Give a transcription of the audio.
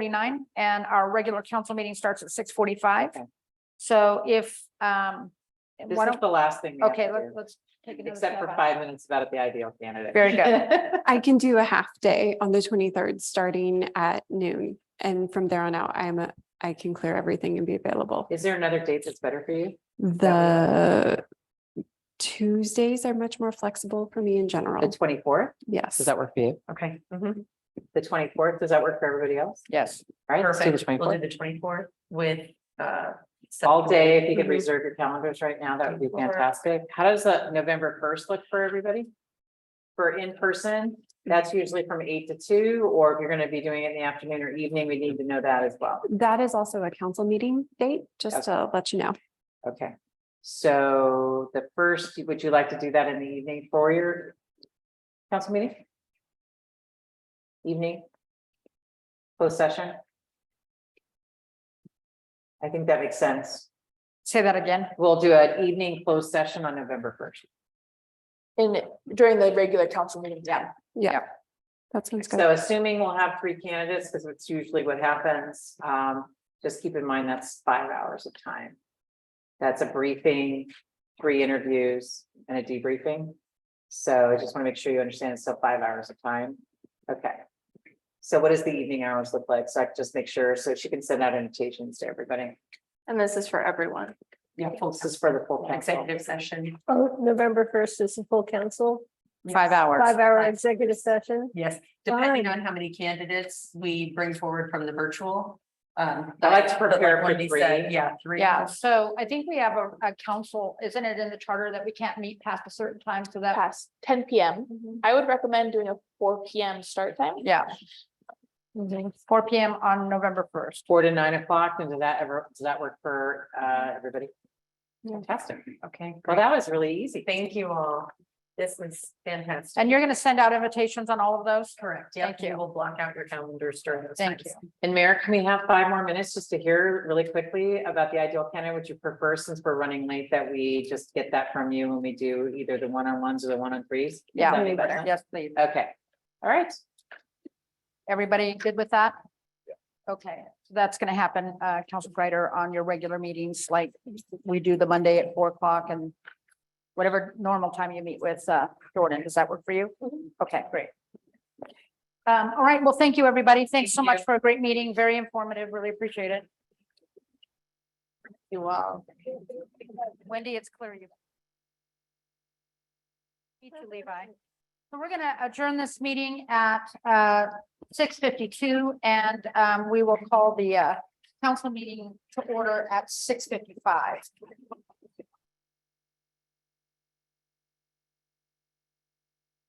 forty-nine and our regular council meeting starts at six forty-five. So if, um, This why is don't, the last thing. we have okay, to let's, do, let's. take another Except for stab at it. five minutes about the ideal candidate. Very good. I can do a half day on the twenty-third, starting at noon. And from there on out, I'm, a- I can clear everything and be available. Is there another date that's better for you? The Tuesdays are much more flexible for me in The general. twenty-fourth? Yes. Does that work for you? Okay. mm-hmm. The twenty-fourth, does that work for everybody else? Yes. All right, Let's do the Perfect. We'll do 24th. the twenty-fourth with, uh. all day, if you could Mhm. reserve your calendars right now, that would be 24th. fantastic. How does the November first look for everybody? For in-person, that's usually from eight to two, or if you're gonna be doing it in the afternoon or evening, we need to know that as well. That is also a council meeting date, just to let you know. Okay, so the first, would you like to do that in the evening for your council meeting? Evening? Closed session? I think that makes sense. Say that again. We'll do an evening closed session on November first. in, during the regular council meeting, yeah. Yeah. That sounds good. So assuming we'll have three candidates, because it's usually what happens, um, just keep in mind that's five hours of time. That's a briefing, three interviews and a debriefing. So I just want to make sure you understand it's still five hours of time. Okay. So what does the evening hours look like? So I can just make sure, so she can send out invitations to everybody. And this is for everyone. Yeah. This is for the full council. Executive session. Oh, November first is the full council, Five hours. five hour executive session. Yes, depending on how many candidates we bring forward from the virtual. Um. I like to but like prepare for Wendy said, three. Yeah, three. Yeah, so I think we have a, a council, isn't it in the charter that we can't meet past a certain time so that? past ten PM. Mm-hmm. I would recommend doing a four PM start time. Yeah. Mm-hmm. Four P M on November first. Four to nine o'clock, and does that ever, does that work for, uh, everybody? Fantastic. Okay, Well, great. that was really easy. Thank you all. This was fantastic. And you're gonna send out invitations on all of those? Correct. Thank Thank you. you. We'll block out your calendars during those Thank times. you. And Mayor, can we have five more minutes just to hear really quickly about the ideal candidate? Would you prefer, since we're running late, that we just get that from you when we do either the one-on-ones or the one-on-threes? Yeah. That'd be better. Yes, please. Okay, all right. Everybody good with that? Okay, so that's gonna happen, uh, Council Greider, on your regular meetings, like we do the Monday at four o'clock and whatever normal time you meet with, uh, Jordan, does that work for you? Okay, great. Um, all right, well, thank you, everybody. Thanks so much for a great meeting, very informative, really appreciate it. You all. Wendy, it's clear you. Me too, Levi. So we're gonna adjourn this meeting at, uh, six fifty-two, and um, we will call the uh, council meeting to order at six fifty-five.